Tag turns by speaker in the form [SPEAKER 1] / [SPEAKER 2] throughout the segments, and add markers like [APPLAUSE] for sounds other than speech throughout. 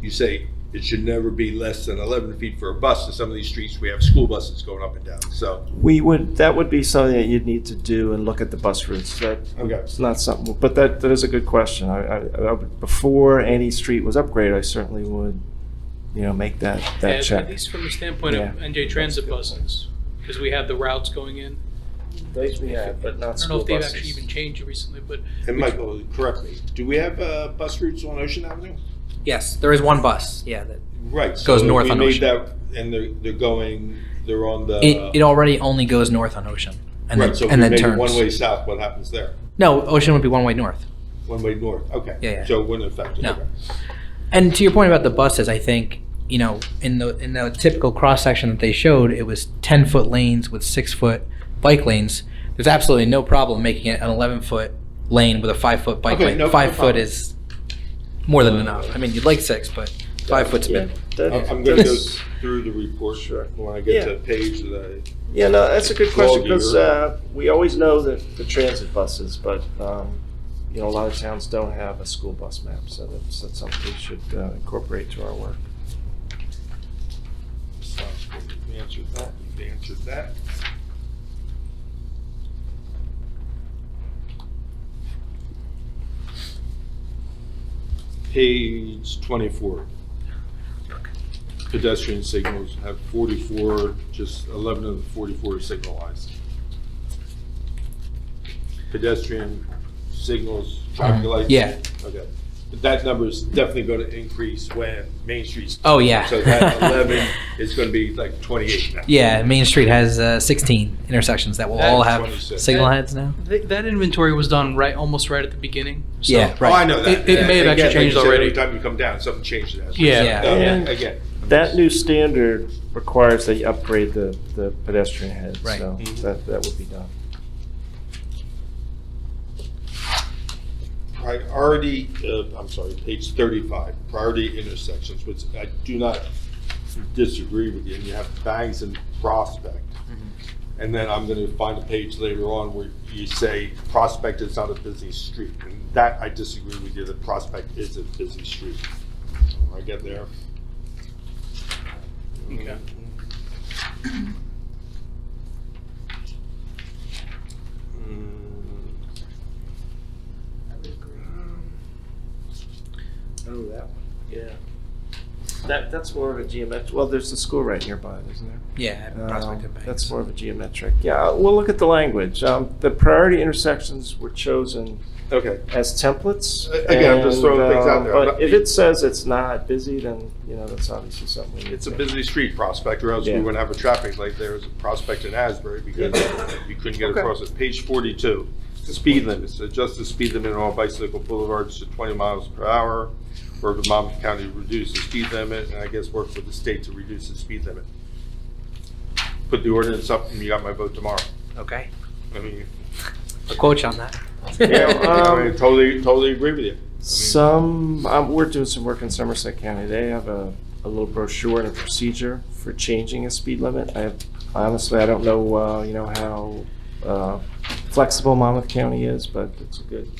[SPEAKER 1] you say it should never be less than 11 feet for a bus. And some of these streets, we have school buses going up and down, so.
[SPEAKER 2] We would, that would be something that you'd need to do and look at the bus routes. That,
[SPEAKER 1] Okay.
[SPEAKER 2] it's not something, but that, that is a good question. I, I, I would- before any street was upgraded, I certainly would, you know, make that, that
[SPEAKER 3] At-
[SPEAKER 2] check.
[SPEAKER 3] At least from the standpoint of
[SPEAKER 2] Yeah.
[SPEAKER 3] NJ Transit buses, because we have the routes going in.
[SPEAKER 2] Those we have, but not
[SPEAKER 3] I don't know
[SPEAKER 2] school
[SPEAKER 3] if they've actually even
[SPEAKER 2] buses.
[SPEAKER 3] changed recently, but
[SPEAKER 1] And Michael, correct me, do we have uh, bus routes on Ocean Avenue?
[SPEAKER 4] Yes, there is one bus, yeah. that-
[SPEAKER 1] Right. so
[SPEAKER 4] Goes north
[SPEAKER 1] we
[SPEAKER 4] on
[SPEAKER 1] made
[SPEAKER 4] Ocean.
[SPEAKER 1] that- And they're, they're going, they're on the.
[SPEAKER 4] It, it already only goes north on Ocean and
[SPEAKER 1] Right, so if
[SPEAKER 4] then,
[SPEAKER 1] we
[SPEAKER 4] and then
[SPEAKER 1] make it
[SPEAKER 4] turns.
[SPEAKER 1] one-way south, what happens there?
[SPEAKER 4] No, Ocean would be one way north.
[SPEAKER 1] One-way north, okay.
[SPEAKER 4] Yeah, yeah.
[SPEAKER 1] So it wouldn't affect it.
[SPEAKER 4] No.
[SPEAKER 1] okay.
[SPEAKER 4] And to your point about the buses, I think, you know, in the, in the typical cross-section that they showed, it was 10-foot lanes with six-foot bike lanes. There's absolutely no problem making it an 11-foot lane with a five-foot bike
[SPEAKER 1] Okay, no-
[SPEAKER 4] lane.
[SPEAKER 1] no
[SPEAKER 4] Five-foot
[SPEAKER 1] problem.
[SPEAKER 4] is more than enough. I mean, you'd like six, but five-foot's
[SPEAKER 2] Yeah,
[SPEAKER 4] been,
[SPEAKER 2] that-
[SPEAKER 1] I'm I'm gonna go
[SPEAKER 2] that's-
[SPEAKER 1] through the report
[SPEAKER 2] Sure.
[SPEAKER 1] when I get to
[SPEAKER 2] Yeah.
[SPEAKER 1] the page that
[SPEAKER 2] Yeah, no, that's a good question,
[SPEAKER 1] Log
[SPEAKER 2] because,
[SPEAKER 1] year.
[SPEAKER 2] uh, we always know that the transit buses, but, um, you know, a lot of towns don't have a school bus map, so that's, that's something we should uh, incorporate to our work.
[SPEAKER 1] I, sounds good. we answered that, we answered that. Page twenty-four. Pedestrian signals have forty-four, just eleven of the forty-four are signalized. Pedestrian signals, traffic
[SPEAKER 4] Um,
[SPEAKER 1] lights.
[SPEAKER 4] yeah.
[SPEAKER 1] Okay. But that number is definitely going to increase when Main Street's.
[SPEAKER 4] Oh, yeah.
[SPEAKER 1] So that
[SPEAKER 4] [LAUGHS]
[SPEAKER 1] 11 is going to be like 28 now.
[SPEAKER 4] yeah, Main Street has uh, 16 intersections that will all
[SPEAKER 1] And
[SPEAKER 4] have
[SPEAKER 1] 26.
[SPEAKER 4] signal heads now.
[SPEAKER 3] th- that inventory was done right, almost right at the beginning. so-
[SPEAKER 4] Yeah,
[SPEAKER 1] Oh,
[SPEAKER 4] right.
[SPEAKER 1] I know that.
[SPEAKER 3] It- it may have
[SPEAKER 1] Again,
[SPEAKER 3] actually
[SPEAKER 1] like you
[SPEAKER 3] changed
[SPEAKER 1] said,
[SPEAKER 3] already.
[SPEAKER 1] Every time you come down, something changes. That's what
[SPEAKER 3] Yeah.
[SPEAKER 1] you said.
[SPEAKER 4] Yeah.
[SPEAKER 1] No, uh, Again.
[SPEAKER 2] That new standard requires that you upgrade the, the pedestrian head,
[SPEAKER 4] Right. Mm-hmm.
[SPEAKER 2] so
[SPEAKER 1] Mhm.
[SPEAKER 2] that, that would be done.
[SPEAKER 1] Priority, uh, I'm sorry, page 35, priority intersections, which I do not disagree with you. And you have Bangs and Prospect. And then I'm going to find a page later on where you say Prospect is not a busy street. And that, I disagree with you, that Prospect is a busy street. When I get there.
[SPEAKER 3] Okay.
[SPEAKER 1] Mm.
[SPEAKER 2] Oh, that one, yeah. That, that's more of a geometric, well, there's a school right nearby, isn't there?
[SPEAKER 4] Yeah, Prospect
[SPEAKER 2] Um,
[SPEAKER 4] and Bank.
[SPEAKER 2] That's more of a geometric, yeah, uh, we'll look at the language. Um, The priority intersections were chosen
[SPEAKER 1] Okay.
[SPEAKER 2] as templates.
[SPEAKER 1] A- again, I'm just
[SPEAKER 2] and,
[SPEAKER 1] throwing things out
[SPEAKER 2] um,
[SPEAKER 1] there. I'm
[SPEAKER 2] But
[SPEAKER 1] not-
[SPEAKER 2] if it says it's not busy, then, you know, that's obviously something we need
[SPEAKER 1] It's a
[SPEAKER 2] to-
[SPEAKER 1] busy street, Prospect, or else we
[SPEAKER 2] Yeah.
[SPEAKER 1] wouldn't have a traffic light there as a Prospect in Asbury because you couldn't get
[SPEAKER 2] Okay.
[SPEAKER 1] across it. Page 42, speed limits, adjust the speed limit on all bicycle boulevards to 20 miles per hour. Work with Monmouth County to reduce the speed limit, and I guess work with the state to reduce the speed limit. Put the ordinance up and you got my vote tomorrow.
[SPEAKER 4] Okay,
[SPEAKER 1] I mean,
[SPEAKER 4] a quote on that. [LAUGHS]
[SPEAKER 1] yeah,
[SPEAKER 2] um,
[SPEAKER 1] I mean, totally, totally agree with you.
[SPEAKER 2] Some, um, we're doing some work in Somerset County. They have a, a little brochure and a procedure for changing a speed limit. I have, honestly, I don't know, uh, you know, how, uh, flexible Monmouth County is, but it's a good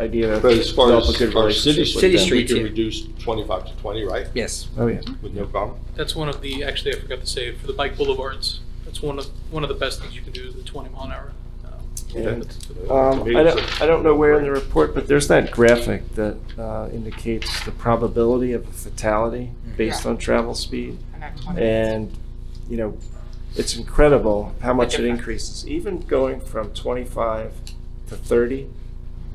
[SPEAKER 2] idea to
[SPEAKER 1] But as far
[SPEAKER 2] develop a good
[SPEAKER 1] as our city
[SPEAKER 2] relationship
[SPEAKER 4] City
[SPEAKER 2] with
[SPEAKER 1] streets,
[SPEAKER 2] them.
[SPEAKER 1] we
[SPEAKER 4] streets,
[SPEAKER 1] can
[SPEAKER 4] yeah.
[SPEAKER 1] reduce 25 to 20, right?
[SPEAKER 4] Yes.
[SPEAKER 2] Oh, yeah.
[SPEAKER 1] With no problem?
[SPEAKER 3] That's one of the, actually, I forgot to say, for the bike boulevards, that's one of, one of the best things you can do is the 20 mile an hour. um,
[SPEAKER 2] And,
[SPEAKER 1] Okay.
[SPEAKER 2] Um,
[SPEAKER 1] To me,
[SPEAKER 2] I
[SPEAKER 1] it's
[SPEAKER 2] don't,
[SPEAKER 1] a-
[SPEAKER 2] I don't know where in the report, but there's that graphic that, uh, indicates the probability of a fatality based on travel speed. And, you know, it's incredible how much it increases. Even going from 25 to 30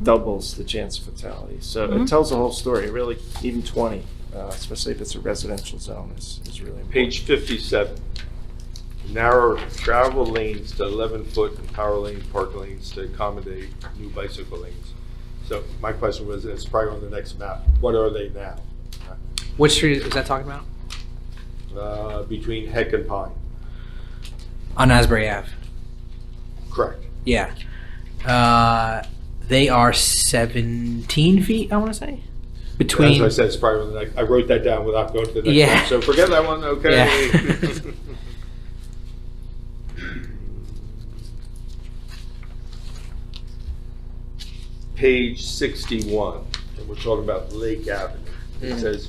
[SPEAKER 2] doubles the chance of fatality. So it tells the whole story, really, even 20, uh, especially if it's a residential zone, is is really important.
[SPEAKER 1] Page 57, narrow travel lanes to 11-foot and power lane park lanes to accommodate new bicycle lanes. So my question was, it's probably on the next map, what are they now?
[SPEAKER 4] Which street is that talking about?
[SPEAKER 1] Uh, Between Heck and Pine,
[SPEAKER 4] On Asbury Ave.
[SPEAKER 1] correct?
[SPEAKER 4] Yeah. Uh, they are 17 feet, I want to say.
[SPEAKER 1] As
[SPEAKER 4] Between.
[SPEAKER 1] I said, it's probably on the next, I wrote that down without going to the next
[SPEAKER 4] Yeah.
[SPEAKER 1] one, so forget that one, okay?
[SPEAKER 4] Yeah.
[SPEAKER 1] [LAUGHS] Page 61, and we're talking about Lake Avenue. It
[SPEAKER 4] Mhm.
[SPEAKER 1] says